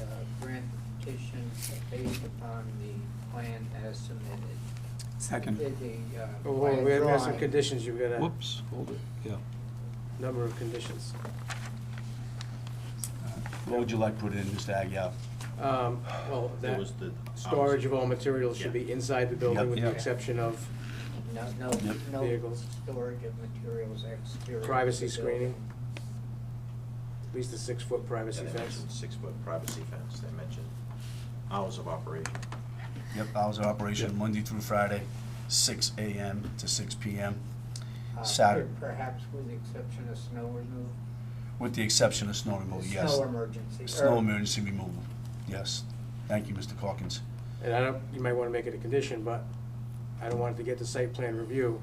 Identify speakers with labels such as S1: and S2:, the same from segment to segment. S1: uh, based upon the plan as submitted.
S2: Second.
S1: The, uh,
S3: Oh, hold on, we have we have
S1: plan
S3: some
S1: drawing.
S3: conditions, you've got a
S4: Whoops, hold it, yeah.
S3: number of conditions.
S5: What would you like put in, Mr. Agia?
S3: Um, Well,
S6: There
S3: that,
S6: was the.
S3: storage of all materials should be inside the building
S5: Yep.
S3: with the
S4: Yeah.
S3: exception of
S1: No, no,
S5: Yep.
S1: no
S3: Vehicles.
S1: storage of materials exterior. to
S3: privacy
S1: the
S3: screening,
S1: building.
S3: at least a six-foot privacy
S6: And they
S3: fence.
S6: mentioned six-foot privacy fence, they mentioned hours of operation.
S5: Yep, hours of operation,
S4: Yep.
S5: Monday through Friday, six AM to six PM,
S1: Uh,
S5: Saturday.
S1: per- Perhaps with the exception of snow removal.
S5: with the exception of snow
S4: Oh,
S5: removal, yes.
S1: Snow emergency.
S5: Snow
S1: or-
S5: emergency removal, yes. Thank you, Mr. Calkins.
S3: And I don't, you might want to make it a condition, but I don't want it to get to site plan review.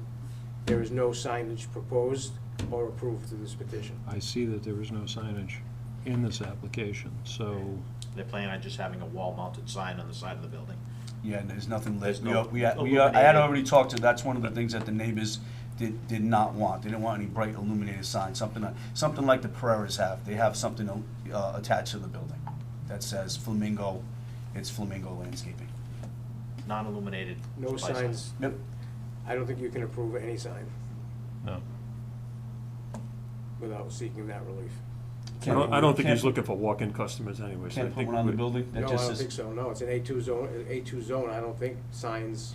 S3: There is no signage proposed or approved to this petition.
S4: I see that there is no signage in this application, so
S6: They plan on just having a wall-mounted sign on the side of the building.
S5: Yeah, and there's nothing lit.
S6: There's
S5: We,
S6: no
S5: are- we, had- we, are- I had
S6: illuminated-
S5: already talked to, that's one of the things that the neighbors did, did not want. They didn't want any bright illuminated signs, something, like- something like the Pereiras have. They have something, uh, attached to the building that says Flamingo, it's Flamingo Landscaping.
S6: non-illuminated.
S3: No
S6: supply
S3: signs,
S5: Yep,
S3: I don't think you can approve any sign
S7: No.
S3: without seeking that relief.
S7: I don't, I don't think he's looking for walk-in customers anyways. I
S5: Can't put
S7: think
S5: one on the
S7: we-
S5: building? That
S3: No, I
S5: just
S3: don't
S5: is-
S3: think so, no, it's an A2 zone, an A2 zone, I don't think signs,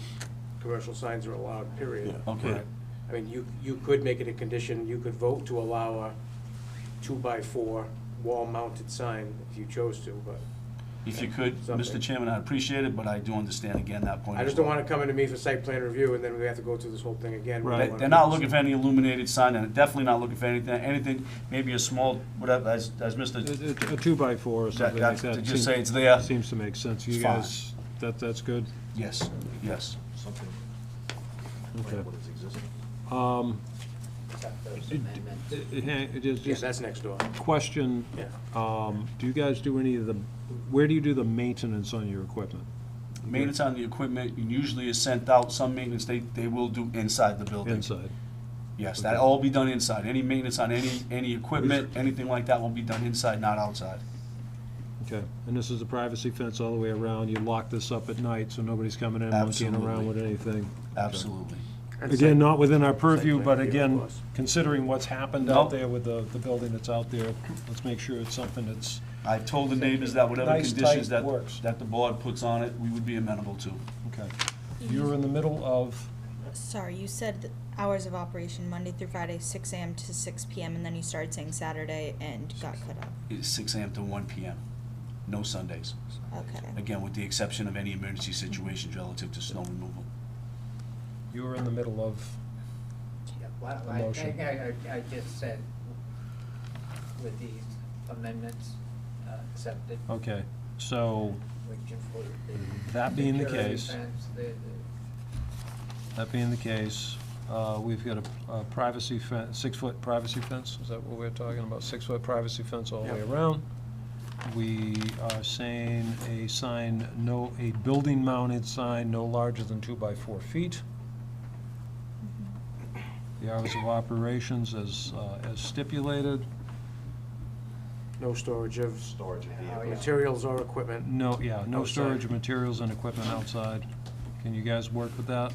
S3: commercial signs are allowed, period.
S7: Yeah.
S5: Okay,
S7: Right.
S3: I mean, you, you could make it a condition, you could vote to allow a two-by-four wall-mounted sign if you chose to, but
S5: if you could, Mr.
S3: Something.
S5: Chairman, I'd appreciate it, but I do understand again that point.
S3: I
S5: as
S3: just don't
S5: well.
S3: want it coming to me for site plan review, and then we have to go through this whole thing again. We don't
S5: They-
S3: wanna
S5: They're
S3: do
S5: not
S3: this.
S5: looking for any illuminated sign, and definitely not looking for anything, anything, maybe a small, whatever, as, as Mr.
S4: a a two-by-four or something like
S5: that's-
S4: that.
S5: to just
S4: seems-
S5: say it's there.
S4: Seems to make sense. You
S5: It's fine.
S4: guys, that, that's good?
S5: Yes, yes.
S6: Something like
S4: Okay.
S6: what is existing.
S4: Um,
S1: Except those
S4: it-
S1: amendments.
S4: it- it is
S3: Yeah,
S4: just
S3: that's next door.
S4: question,
S3: Yeah.
S4: um, do you guys do any of the, where do you do the maintenance on your equipment?
S5: Maintenance on the equipment usually is sent out, some maintenance they, they will do inside the building.
S4: Inside?
S5: Yes, that'll all be done inside, any maintenance on any, any equipment, anything like that will be done inside, not outside.
S4: Okay. And this is a privacy fence all the way around. You lock this up at night, so nobody's coming in, monkeying around
S5: Absolutely.
S4: with anything.
S5: Absolutely.
S4: Again, not within our purview,
S3: plan
S4: but
S3: review, of
S4: again,
S3: course.
S4: considering what's happened out
S5: Nope.
S4: there with the, the building that's out there, let's make sure it's something that's,
S5: I've told the neighbors that whatever
S4: Nice, tight
S5: conditions that,
S4: works.
S5: that the board puts on it, we would be amenable to.
S4: okay. You're in the middle of,
S8: Sorry, you said th- hours of operation Monday through Friday, six AM to six PM, and then you started saying Saturday and got cut off.
S5: It's six AM to one PM, no Sundays.
S8: Okay.
S5: Again, with the exception of any emergency situations relative to snow removal.
S4: you're in the middle of,
S1: Yeah, Well, I
S4: Motion.
S1: think I, I- I just said with these amendments uh, accepted,
S4: okay. So,
S1: which include the.
S4: that being the
S1: security
S4: case,
S1: fence, the- the-
S4: that being the case, uh, we've got a- a privacy fence, six-foot privacy fence, is that what we're talking about? Six-foot privacy fence all the way around. We are saying a sign, no, a building-mounted sign no larger than two by four feet.
S8: Mm-hmm.
S4: The hours of operations as, uh, as stipulated.
S3: No storage of
S6: Storage of
S1: Oh,
S6: vehicles.
S1: yeah.
S3: materials or equipment.
S4: No, yeah, no
S3: Outside.
S4: storage of materials and equipment outside. Can you guys work with that?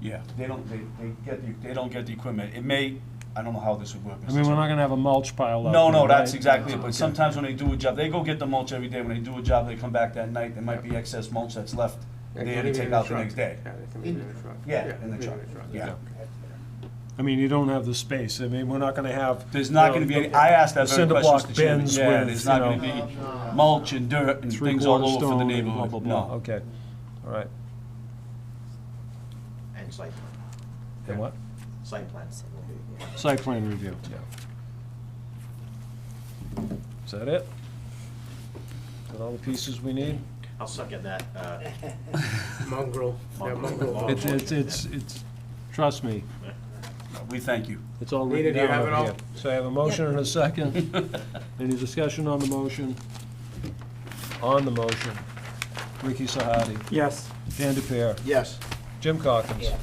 S5: Yeah, they don't, they, they get, the- they don't get the equipment. It may, I don't know how this would work.
S4: I
S5: Mr.
S4: mean, we're
S5: Chairman.
S4: not gonna have a mulch pile out
S5: No,
S4: there,
S5: no, that's
S4: right?
S5: exactly it,
S4: Okay.
S5: but sometimes when they do a job, they go get the mulch every day, when they do a job, they come back that night, there might be excess mulch that's left there to take out the next day.
S3: Yeah, they can leave it in the truck.
S5: Yeah, in the
S3: leave it
S5: truck, yeah.
S4: I mean, you don't have the space. I mean, we're not gonna have.
S5: There's not
S4: you know,
S5: gonna be any, I asked that very
S4: Cinder
S5: question,
S4: block
S5: Mr. Chairman,
S4: bins
S5: yeah,
S4: with,
S5: there's
S4: you
S5: not
S4: know,
S5: gonna be mulch and dirt and things all
S4: Three-quarter
S5: over for
S4: stone
S5: the
S4: and blah, blah,
S5: neighborhood,
S4: blah.
S5: no.
S4: Okay, all right.
S6: And site, plan.
S4: And what?
S6: site plan.
S4: Site plan review, yeah. Is that it? Got all the pieces we need?
S6: I'll suck at that, uh,
S3: Mongrel, yeah, mongrel.
S6: Mongrel.
S4: It's, it's, it's, it's, trust me,
S5: We thank you.
S4: it's all
S3: Nina,
S4: written
S3: do you
S4: down
S3: have
S4: over
S3: it all?
S4: here. So I have a motion and a second. Any discussion on the motion? On the motion, Ricky Sahadi,
S2: Yes.
S4: Dan DePere,
S3: Yes.
S4: Jim Calkins,
S1: Yeah.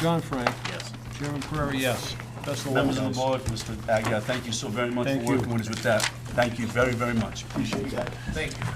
S4: John Frank,
S6: yes.
S4: Chairman Prairie, yes. Best of luck,
S5: Members of the
S4: guys.
S5: board, Mr. Agia, thank you so very much for
S4: Thank you.
S5: working with us with that, thank you very, very much, appreciate that.